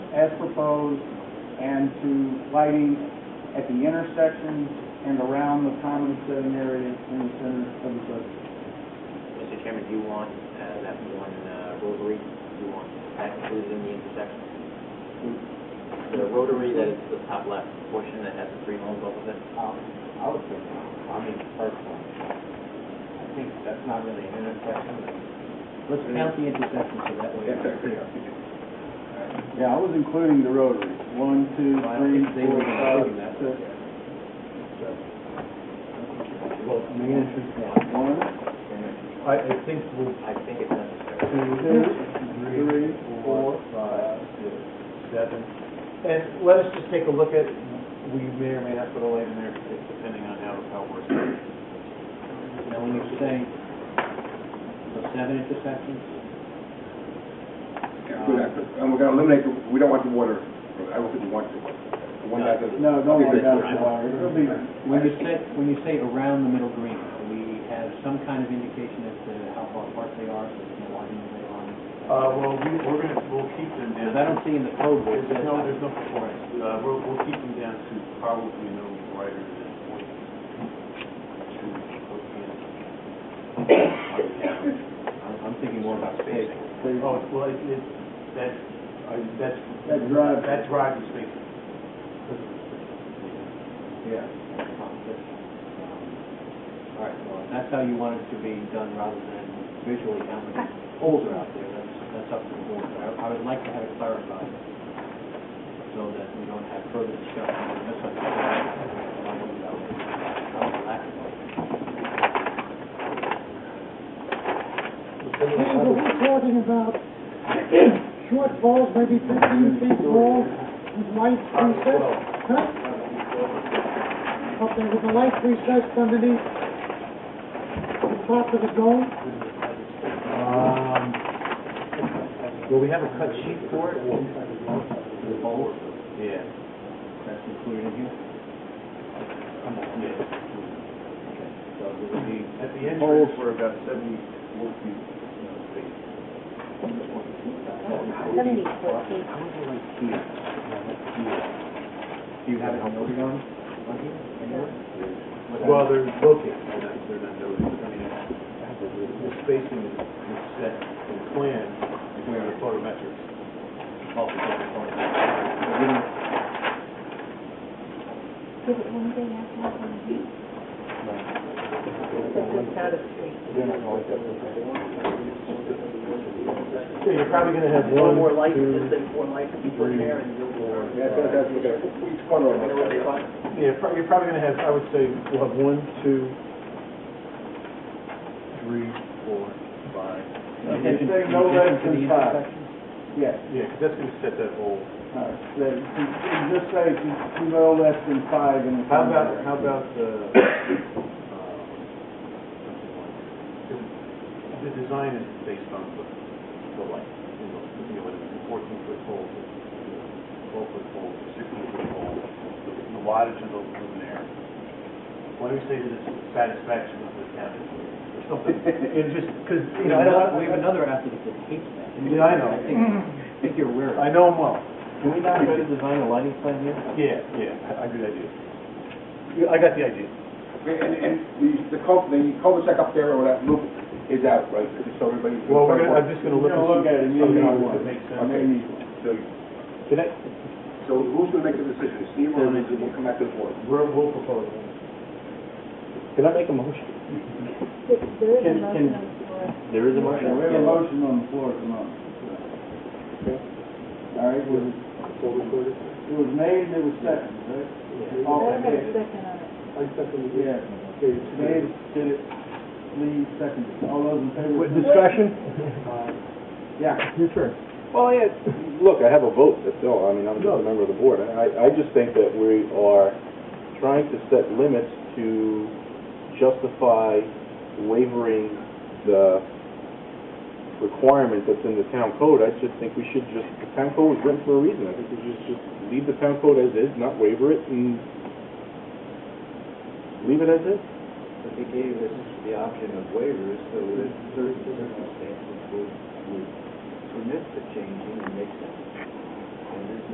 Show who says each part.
Speaker 1: as proposed and to lighting at the intersections and around the common sitting area in the center of the city.
Speaker 2: Mr. Chairman, do you want uh, that one uh, rotary, do you want that included in the intersection? The rotary that is the top left portion that has the three homes off of it?
Speaker 3: Um, I would think, I mean, personally, I think that's not really an intersection.
Speaker 1: Let's count the intersections so that
Speaker 3: If they're clear.
Speaker 1: Yeah, I was including the rotary. One, two,
Speaker 3: I don't
Speaker 1: three,
Speaker 3: think they
Speaker 1: four,
Speaker 3: were
Speaker 1: five,
Speaker 3: including that.
Speaker 1: six.
Speaker 3: Well, I mean, it's just one.
Speaker 1: One,
Speaker 4: I, I think we'll
Speaker 2: I think it's necessary.
Speaker 4: two, three, four, five, six, seven. And let us just take a look at, we may or may not put a light in there, depending on how, how we're.
Speaker 3: Now, when you say, so seven intersections?
Speaker 5: Good effort. And we're gonna eliminate, the- we don't want the water, I don't think we want the, one guy doesn't.
Speaker 1: no, don't worry about it,
Speaker 5: Okay,
Speaker 1: Dwyer. It'll be,
Speaker 3: When you say, when you say around the middle green, do we have some kind of indication as to how far apart they are, so we can widen them on?
Speaker 4: Uh, well, we, we're gonna, we'll keep them down.
Speaker 3: Because I don't see in the code where it
Speaker 4: There's no,
Speaker 3: says.
Speaker 4: there's no performance. Uh, we'll, we'll keep them down to probably no brighter than point two, fourteen.
Speaker 3: I'm, I'm thinking more about Um, spacing.
Speaker 4: Oh, well, it, it, that's, I, that's.
Speaker 1: That drive.
Speaker 4: That drive is big.
Speaker 3: Yeah. All right, well, if that's how you want it to be done rather than visually how many holes are out there, that's, that's up to the board. But I, I would like to have it clarified so that we don't have further discussion or misunderstanding about about the lack of light.
Speaker 6: Yeah, but we're talking about short balls, maybe fifteen feet tall, with lights recessed, huh? Okay, with the lights recessed underneath the top of the dome,
Speaker 4: Um, will we have a cut sheet for it?
Speaker 3: The holes,
Speaker 4: Yeah.
Speaker 3: that's included in here?
Speaker 4: Yeah.
Speaker 3: Okay, so it would be
Speaker 4: At the entrance, we're about seventy-four feet, you know, space.
Speaker 7: Seventy-four feet.
Speaker 3: How would you like here? Do you have it noted on, on here?
Speaker 4: Well, they're located, they're not, they're not noted, I mean, it's- the spacing is is set in plan, if we are photometrics.
Speaker 7: Is it one thing after that one?
Speaker 4: Yeah, you're probably gonna have one,
Speaker 8: more light,
Speaker 4: two,
Speaker 8: just like one light could be put there and you'll.
Speaker 5: that's what I was looking at. Each corner of
Speaker 8: You know what they
Speaker 5: it.
Speaker 8: want.
Speaker 4: yeah, prob- you're probably gonna have, I would say, we'll have one, two, three, four, five.
Speaker 1: okay, say no less than five. Yes,
Speaker 4: Yeah, 'cause that's gonna set that whole.
Speaker 1: all right. Say- Just say to no less than five in the.
Speaker 4: How about, how about the, uh, the design is based on the, the light, you know, you know, it's a fourteen foot pole, twelve foot pole, sixteen foot pole, the wattage of the luminaire. Why do we say to the satisfaction of the county, or something, and just, because, you know, I don't,
Speaker 3: We have another applicant that hates that.
Speaker 4: Yeah, I know.
Speaker 3: I think, I think you're aware of
Speaker 4: I
Speaker 3: it.
Speaker 4: know them well,
Speaker 3: Can we not try to design a lighting plan here?
Speaker 4: yeah, yeah, I I agree with you. Yeah, I got the idea.
Speaker 5: And, and the, the cul, the cul-de-sac up there or that loop is out, right, because so everybody.
Speaker 4: Well, we're gonna, I'm just gonna
Speaker 1: You're
Speaker 4: look.
Speaker 1: gonna look at it, you
Speaker 4: Okay,
Speaker 1: know
Speaker 4: if
Speaker 1: what.
Speaker 4: it makes sense.
Speaker 5: Okay. So,
Speaker 4: Can I,
Speaker 5: so who's gonna make the decision, Steve or Lindsay, will come back to the board?
Speaker 4: We'll, we'll propose. Can I make a motion?
Speaker 7: There is a
Speaker 4: Can-
Speaker 7: motion
Speaker 4: can-
Speaker 7: on the floor.
Speaker 4: There is a
Speaker 1: We have a motion on the floor at the moment. All right, was it, it was made and it was seconded, right? All
Speaker 7: Better have a
Speaker 1: seconded.
Speaker 7: second on it.
Speaker 1: Yeah, it's made, did it, Lee seconded. All those in favor?
Speaker 9: Discussion?
Speaker 1: Yeah.
Speaker 9: Yes, sir.
Speaker 10: Well, yeah, look, I have a vote, that's all, I mean, I'm just a member of the board. I, I just think that we are trying to set limits to justify wavering the requirement that's in the town code. I just think we should just, the town code was written for a reason. I think we should just leave the town code as is, not waver it, and leave it as is.
Speaker 3: But they gave us the option of waivers, so that certain circumstances would, would permit the changing and make sense. and this